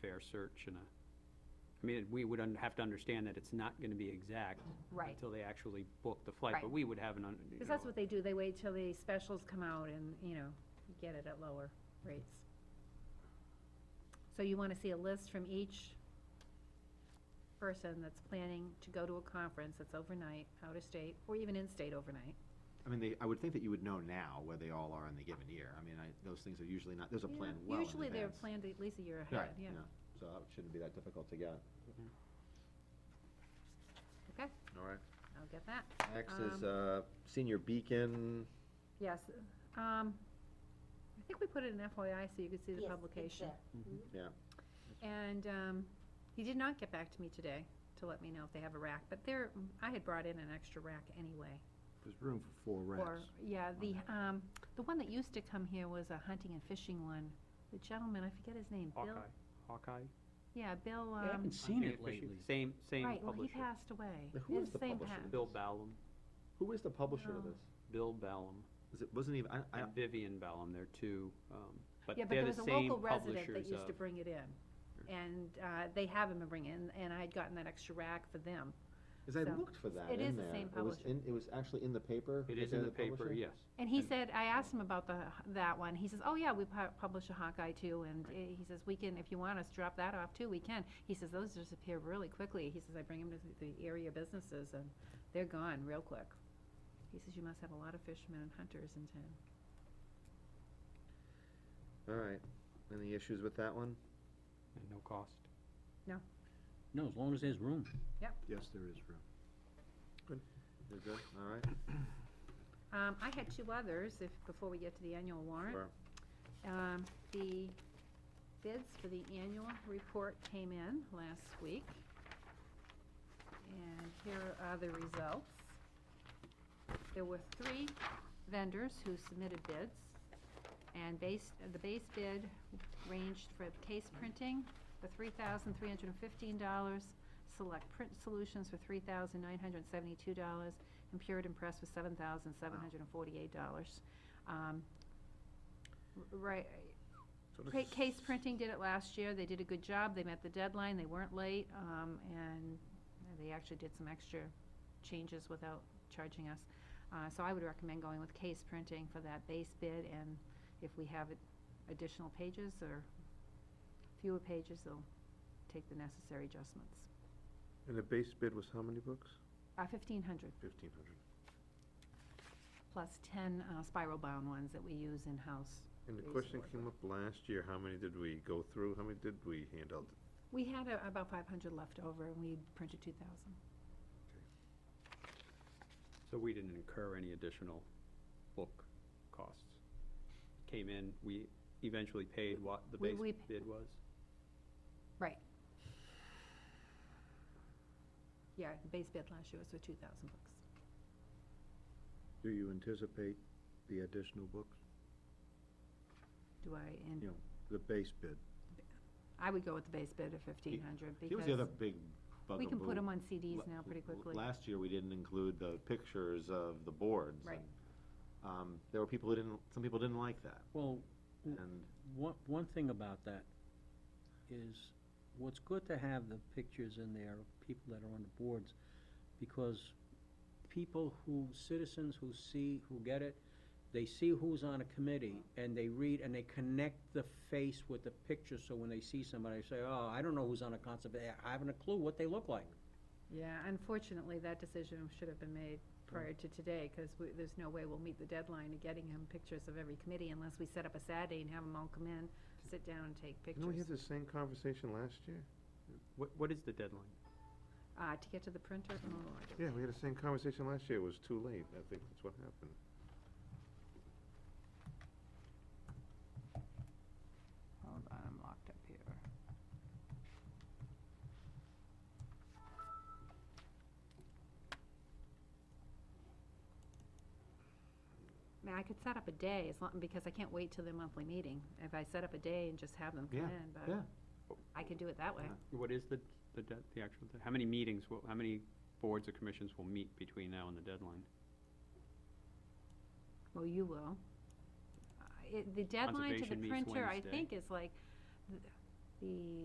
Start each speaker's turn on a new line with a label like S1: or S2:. S1: fair search and a, I mean, we would un- have to understand that it's not gonna be exact.
S2: Right.
S1: Until they actually book the flight, but
S2: Right.
S1: we would have an, un- you
S2: Because that's
S1: know,
S2: what they do, they wait till the specials come out and, you know, get it at lower rates. So you wanna see a list from each person that's planning to go to a conference that's overnight, out of state, or even in-state overnight.
S3: I mean, they, I would think that you would know now where they all are in the given year. I mean, I, those things are usually not, there's a
S2: Yeah,
S3: plan well in
S2: Usually they're
S3: advance.
S2: planned at least a year
S3: Right,
S2: ahead, yeah.
S3: So that shouldn't be that difficult to get.
S2: Okay,
S3: All right.
S2: I'll get that.
S3: Next
S2: is,
S3: is, uh, senior beacon.
S2: Yes, um, I think we put it in FYI so you could see the
S4: Yes,
S2: publication.
S4: exact.
S2: And um, he did not get back to me today to let me know if they have a rack, but there, I had brought in an extra rack anyway.
S3: There's room for four
S2: Or Yeah, the, um, the one that used to come here was a hunting and fishing one. The gentleman, I forget his name, Bill?
S1: Hawkeye, Hawkeye.
S2: Yeah, Bill,
S1: I
S2: um,
S1: haven't seen it lately. Same, same
S2: right, well, um, he
S1: publisher.
S2: passed away.
S3: Now, who
S2: Yeah,
S3: is the
S2: same
S3: publisher?
S2: pa-
S1: Bill Ballum,
S3: Who is the publisher of
S2: No.
S3: this?
S1: Bill Ballum,
S3: Is it, wasn't even, I, I,
S1: and Vivian Ballum, they're two, um, but
S2: Yeah, but
S1: they're
S2: there
S1: the
S2: was a
S1: same
S2: local resident
S1: publishers
S2: that used to
S1: of,
S2: bring it in. And uh, they have him bring it in, and I had gotten that extra rack for them.
S3: cause I
S2: So,
S3: looked for that
S2: it is
S3: in
S2: the
S3: there.
S2: same
S3: It was
S2: publisher.
S3: in, it was actually in the paper.
S1: it
S3: that
S1: is in
S3: they're
S1: the paper,
S3: publisher?
S1: yes.
S2: And he
S1: And-
S2: said, I asked him about the, that one, he says, oh yeah, we pu- publish a Hawkeye too, and uh, he says, we can, if you want us, to drop that off too, we can. He says, those disappear really quickly, he says, I bring them to the the area businesses and they're gone real quick. He says, you must have a lot of fishermen and hunters in town.
S3: All right. Any issues with that one?
S1: And no cost.
S5: No, as long as there's room.
S6: Yes, there is room.
S3: You're good? All right.
S2: Um, I had two others, if, before we get to the annual warrant.
S3: Sure.
S2: Um, the bids for the annual report came in last week. And here are the results. There were three vendors who submitted bids. And base, the base bid ranged for case printing for three thousand three hundred and fifteen dollars, select print solutions for three thousand nine hundred and seventy-two dollars, and Puritan Press for seven thousand seven hundred and forty-eight dollars. Um, Right, Ca- Case Printing did it last year, they did a good job, they met the deadline, they weren't late, um, and they actually did some extra changes without charging us. Uh, so I would recommend going with Case Printing for that base bid, and if we have ad- additional pages or fewer pages, they'll take the necessary adjustments.
S6: And the base bid was how many books?
S2: Uh, fifteen hundred
S6: Fifteen hundred.
S2: plus ten, uh, spiral bound ones that we use in-house.
S6: And the
S2: Base
S6: question
S2: bid.
S6: came up last year, how many did we go through? How many did we hand out?
S2: We had a- about five hundred left over, and we printed two thousand.
S1: So we didn't incur any additional book costs. Came in, we eventually paid what the
S2: We-
S1: base
S2: we-
S1: bid was.
S2: Right. Yeah, the base bid last year was for two thousand bucks.
S6: Do you anticipate the additional books?
S2: Do I, and
S6: Yeah. The base bid.
S2: I would go with the base bid of fifteen hundred
S3: Here was the other
S2: because
S3: big bugaboo.
S2: we can put them on CDs
S3: La-
S2: now pretty
S3: l-
S2: quickly.
S3: Last year, we didn't include the pictures of the boards.
S2: Right.
S3: and, Um, there were people who didn't, some people didn't like that,
S5: Well, Mm.
S3: and
S5: one, one thing about that is, what's good to have the pictures in there of people that are on the boards, because people who, citizens who see, who get it, they see who's on a committee, and they read, and they connect the face with the picture, so when they see somebody, they say, oh, I don't know who's on a concept, I haven't a clue what they look like.
S2: Yeah, unfortunately, that decision should have been made prior to today because there's no way we'll meet the deadline of getting him pictures of every committee unless we set up a Saturday and have them all come in, sit down and take
S6: Didn't we have
S2: pictures.
S6: the same conversation last year?
S1: What, what is the deadline?
S2: Uh, to get to the printer, oh, I don't-
S6: Yeah, we had the same conversation last year. It was too late. I think that's what happened.
S2: hold on, I'm locked up here. I mean, I could set up a day, as long, because I can't wait till their monthly meeting. If I set up a day and just have them come
S3: Yeah,
S2: in, but
S3: yeah.
S2: I could do it that way.
S3: Yeah.
S1: What is the, the, dead- the actual, de- how many meetings, will- how many boards or commissions will meet between now and the deadline?
S2: Well, you will. Uh, it- The deadline to the
S1: Conservation meets
S2: printer, I
S1: Wednesday.
S2: think, is like, th- the